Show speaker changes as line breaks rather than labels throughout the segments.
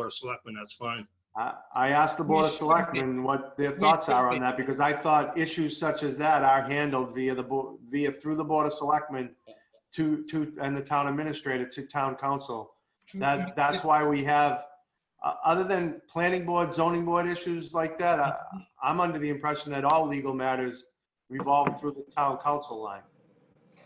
Board of Selectmen, that's fine.
I I asked the Board of Selectmen what their thoughts are on that, because I thought issues such as that are handled via the, bo- via, through the Board of Selectmen to, to, and the town administrator to town council.
Mm-hmm.
That, that's why we have, uh, other than planning board, zoning board issues like that, I, I'm under the impression that all legal matters revolve through the town council line.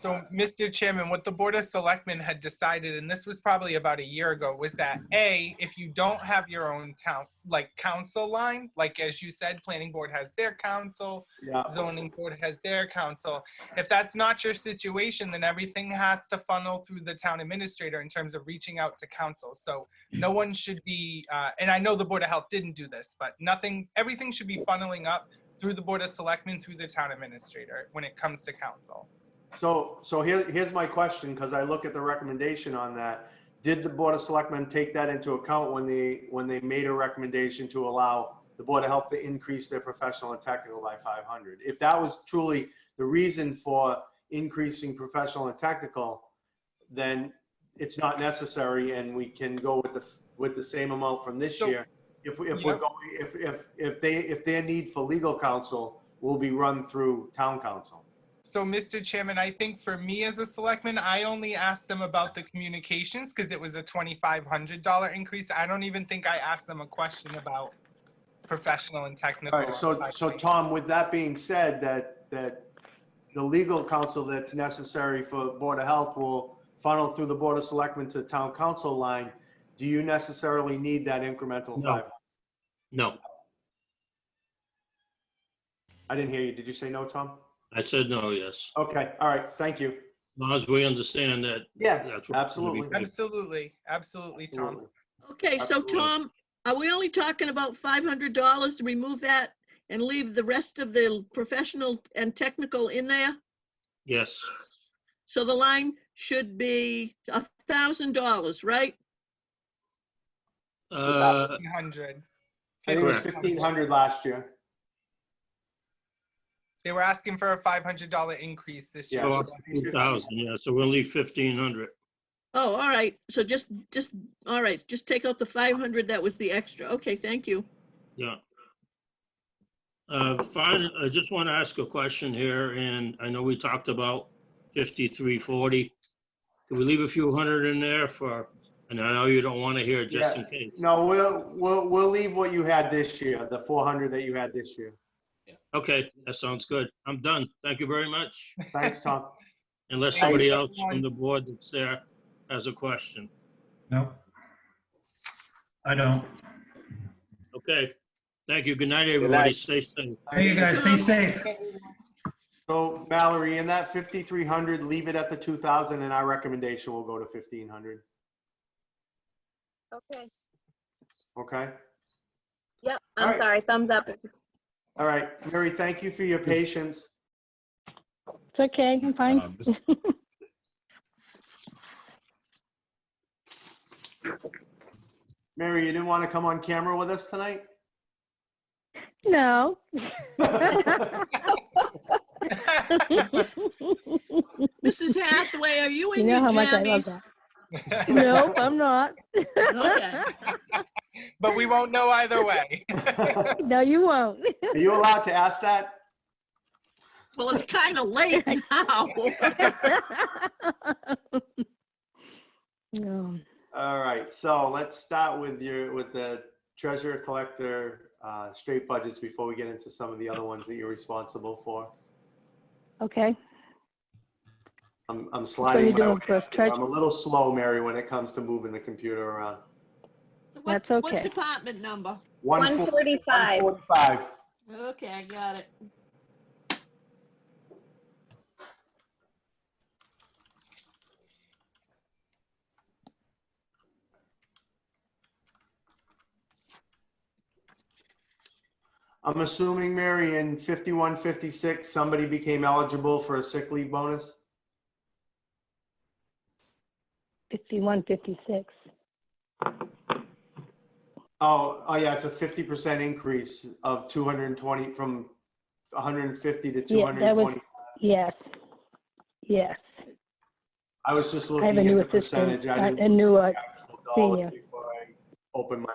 So, Mr. Chairman, what the Board of Selectmen had decided, and this was probably about a year ago, was that A, if you don't have your own count, like council line, like as you said, planning board has their council,
Yeah,
zoning board has their council. If that's not your situation, then everything has to funnel through the town administrator in terms of reaching out to council. So no one should be, uh, and I know the Board of Health didn't do this, but nothing, everything should be funneling up through the Board of Selectmen, through the town administrator when it comes to council.
so, so here, here's my question, because I look at the recommendation on that. Did the Board of Selectmen take that into account when they, when they made a recommendation to allow the Board of Health to increase their professional and technical by 500? If that was truly the reason for increasing professional and technical, then it's not necessary and we can go with the, with the same amount from this
So-
year. If, we- if we're
Yep.
going, if, if, if they, if their need for legal counsel will be run through town council.
So, Mr. Chairman, I think for me as a selectman, I only asked them about the communications because it was a twenty-five hundred dollar increase. I don't even think I asked them a question about professional and technical.
All right, so, so Tom, with that being said, that, that the legal counsel that's necessary for Board of Health will funnel through the Board of Selectmen to the Town Council line, do you necessarily need that incremental
No.
five?
No,
I didn't hear you, did you say no, Tom?
I said no, yes.
Okay, all right, thank you.
As long as we understand that,
Yeah,
that's. what we're gonna be doing.
Absolutely.
Absolutely, absolutely, Tom.
absolutely.
Okay, so
Absolutely.
Tom, are we only talking about five hundred dollars to remove that and leave the rest of the professional and technical in there?
Yes,
So the line should be a thousand dollars, right?
uh,
$1,500.
I think it was
Correct.
fifteen hundred last year.
They were asking for a five hundred dollar increase this year.
Yeah.
so
so
that-
2,000, yeah, so we'll leave 1,500.
Oh, all right, so just, just, all right, just take out the five hundred, that was the extra, okay, thank you.
Yeah. Uh, Fine, I just want to ask a question here, and I know we talked about 5340. Can we leave a few hundred in there for, and I know you don't want to hear it just in case.
No, we'll, we'll, we'll leave what you had this year, the four hundred that you had this year.
Okay, that sounds good. I'm done. Thank you very much.
Thanks, Tom.
Unless
Thanks,
somebody else
everyone.
from the board that's there has a question.
No. I don't.
Okay, thank you. Good night, everybody. Stay safe.
Hey, you guys, stay safe.
So Mallory, in that fifty-three hundred, leave it at the two thousand, and our recommendation will go to fifteen hundred,
Okay,
okay?
yep,
All
I'm
right.
sorry, thumbs up.
All right, Mary, thank you for your patience.
It's okay, I'm fine.
Um, Mr.
Mary, you didn't want to come on camera with us tonight?
No.
Mrs. Hathaway, are you
You
in
know
your
how much I love
jammies?
that. Nope, I'm not.
Okay,
But we won't know either way.
Are
No, you won't.
you allowed to ask that?
well, it's kind of late now.
No.
All right, so let's start with your, with the treasurer collector, uh, straight budgets before we get into some of the other ones that you're responsible for.
Okay,
I'm, I'm sliding
you
my
doing
way.
for
through.
treas-
I'm a little slow, Mary, when it comes to moving the computer around.
What-
That's
What
okay.
department number?
One forty-
145.
145.
Okay, I got it.
I'm assuming, Mary, in 51, 56, somebody became eligible for a sick leave bonus?
51, 56.
Oh, oh yeah, it's a 50% increase of 220, from 150 to
Yeah, that was-
220.
Yes, yes.
I was just
I have a
looking
new
at the
assistant,
percentage. I
a
didn't
a new, uh,
actual dollars
senior.
before I opened my